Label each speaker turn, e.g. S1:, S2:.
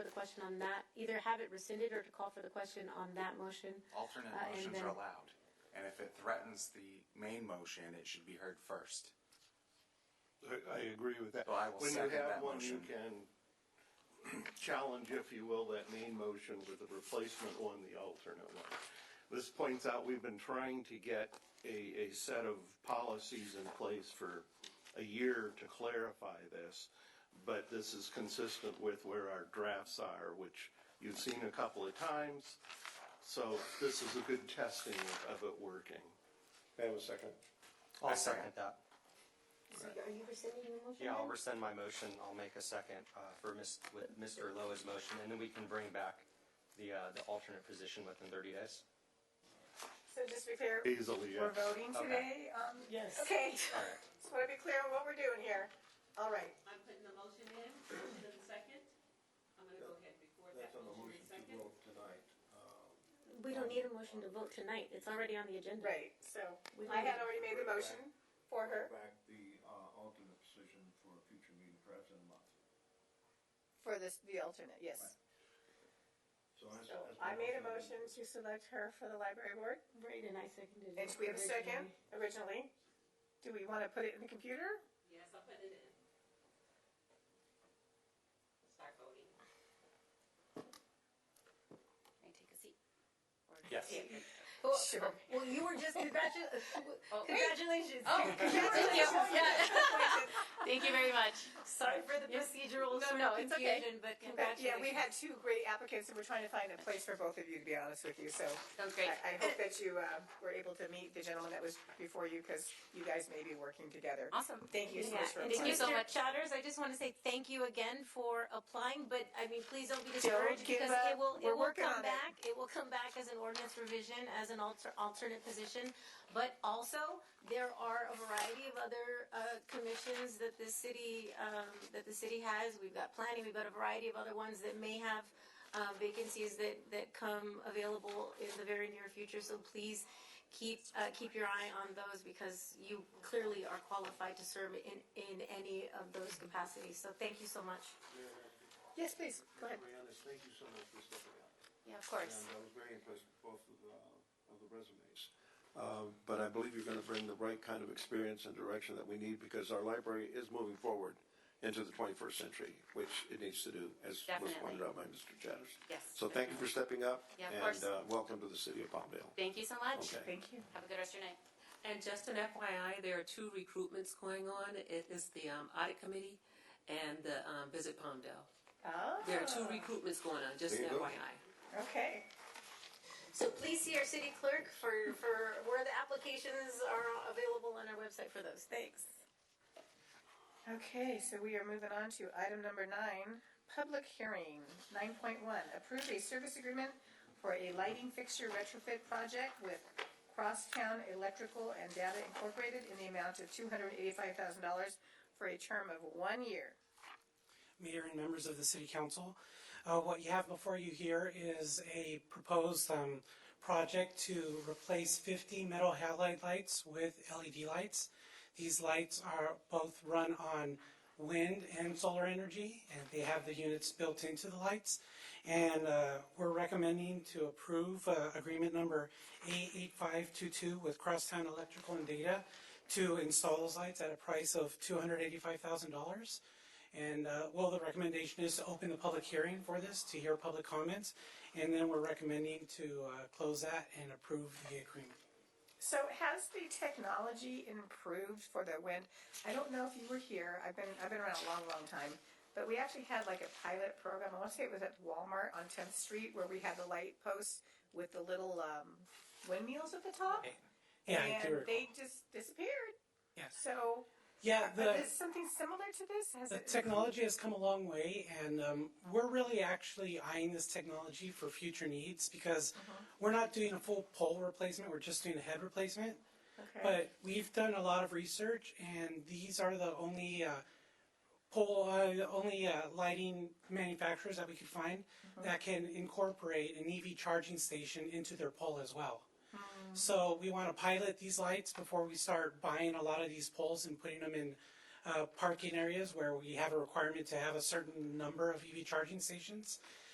S1: question on that, either have it rescinded or to call for the question on that motion.
S2: Alternate
S1: Uh, and
S2: motions
S1: then-
S2: are allowed. And if it threatens the main motion, it should be heard first.
S3: I, I agree with that.
S2: So I will second that
S3: When
S2: motion.
S3: you have one, you can challenge, if you will, that main motion with the replacement one, the alternate one. This points out, we've been trying to get a, a set of policies in place for a year to clarify this, but this is consistent with where our drafts are, which you've seen a couple of times, so this is a good testing of it working.
S4: May I have a second?
S5: I'll
S2: I second.
S5: second that.
S1: So Are you rescinding your motion?
S5: Yeah, I'll
S1: then?
S5: rescind my motion. I'll make a second uh, for Ms., with Mr. Loa's motion, and then we can bring back the, uh, the alternate position within 30 days.
S6: So just to be clear,
S3: Easily,
S6: we're
S3: yes.
S6: voting today? um,
S7: Yes.
S6: Okay,
S5: All right.
S6: just want to be clear on what we're doing here. All right,
S8: I'm putting the motion in, motion and second. I'm gonna go ahead before that
S4: That's on the
S8: motion
S4: motion
S8: and second.
S4: to vote tonight. uh,
S1: We don't need a motion to vote tonight. It's already on the agenda.
S6: right, so
S1: We
S6: I had
S1: can-
S6: already made the motion for her,
S4: Back the uh, alternate position for a future meeting, perhaps in a month.
S6: for this, the alternate, yes.
S4: So that's-
S6: So
S4: that's my
S6: I made a motion to select her for the library board,
S1: Right, and I seconded it.
S6: and we have a second
S1: originally.
S6: originally. Do we want to put it in the computer?
S8: Yes, I'll put it in. Start voting.
S9: May I take a seat? Or-
S5: Yes.
S9: Well,
S6: Sure.
S9: Well, you were just congratulated.
S7: Congratulations.
S9: Oh, congratulations. Thank you very much.
S7: Sorry for the
S9: Procedural
S7: No,
S9: sort
S7: no,
S9: of
S7: it's okay.
S9: confusion, but
S6: But
S9: congratulations.
S6: yeah, we had two great applicants, and we're trying to find a place for both of you, to be honest with you, so.
S9: Sounds great.
S6: I I hope that you uh, were able to meet the gentleman that was before you, because you guys may be working together.
S9: Awesome.
S6: Thank you so
S1: Yeah,
S6: much for
S1: and
S9: Thank you
S6: applying.
S9: so
S1: Mr.
S9: much.
S1: Chatters, I just want to say thank you again for applying, but I mean, please don't be discouraged
S6: give
S1: because it
S6: up.
S1: will, it
S6: We're
S1: will
S6: working on
S1: come
S6: it.
S1: back. It will come back as an ordinance revision, as an alter, alternate position. But also, there are a variety of other, uh, commissions that the city, um, that the city has. We've got planning, we've got a variety of other ones that may have, uh, vacancies that, that come available in the very near future. So please keep, uh, keep your eye on those because you clearly are qualified to serve in, in any of those capacities. So thank you so much.
S6: Yes, please, go ahead.
S4: Marianis, thank you so much for stepping up.
S1: Yeah, of
S4: And I was very impressed with both of the, of the resumes. Uh, But I believe you're going to bring the right kind of experience and direction that we need because our library is moving forward into the 21st century, which it needs to do, as was
S9: Definitely.
S4: pointed out by Mr. Chatters.
S9: Yes,
S4: So thank you for stepping up.
S9: Yeah, of course.
S4: And uh, welcome to the city of Palmdale.
S9: Thank you so much.
S4: Okay.
S6: Thank you.
S9: Have a good rest of your night.
S8: And just an FYI, there are two recruitments going on. It is the um, audit committee and the um, Visit Palmdale.
S6: Ah,
S8: There are two recruitments going on, just
S4: There
S8: an
S4: you go.
S8: FYI.
S6: okay.
S1: So please see our city clerk for, for where the applications are available on our website for those. Thanks.
S6: Okay, so we are moving on to item number nine, public hearing, nine point one, approve a service agreement for a lighting fixture retrofit project with Crosstown Electrical and Data Incorporated in the amount of two hundred eighty-five thousand dollars for a term of one year.
S7: Mayor and members of the City Council. Uh, What you have before you here is a proposed um, project to replace 50 metal halide lights with LED lights. These lights are both run on wind and solar energy, and they have the units built into the lights. And uh, we're recommending to approve uh, agreement number 88522 with Crosstown Electrical and Data to install those lights at a price of $285,000. And, uh, well, the recommendation is to open the public hearing for this, to hear public comments, and then we're recommending to uh, close that and approve the agreement.
S6: So has the technology improved for the wind? I don't know if you were here. I've been I've been around a long, long time. But we actually had like a pilot program. I want to say it was at Walmart on 10th Street where we had the light posts with the little um, windmills at the top,
S7: Yeah, I do
S6: and
S7: recall.
S6: they just disappeared.
S7: Yes.
S6: So
S7: Yeah, the.
S6: is something similar to this? Has
S7: The
S6: it
S7: technology has come a long way, and um, we're really actually eyeing this technology for future needs because
S6: Uh-huh.
S7: we're not doing a full pole replacement, we're just doing a head replacement.
S6: Okay.
S7: But we've done a lot of research, and these are the only uh, pole, uh, the only uh, lighting manufacturers that we could find that can incorporate an EV charging station into their pole as well. So we want to pilot these lights before we start buying a lot of these poles and putting them in uh, parking areas where we have a requirement to have a certain number of EV E charging stations.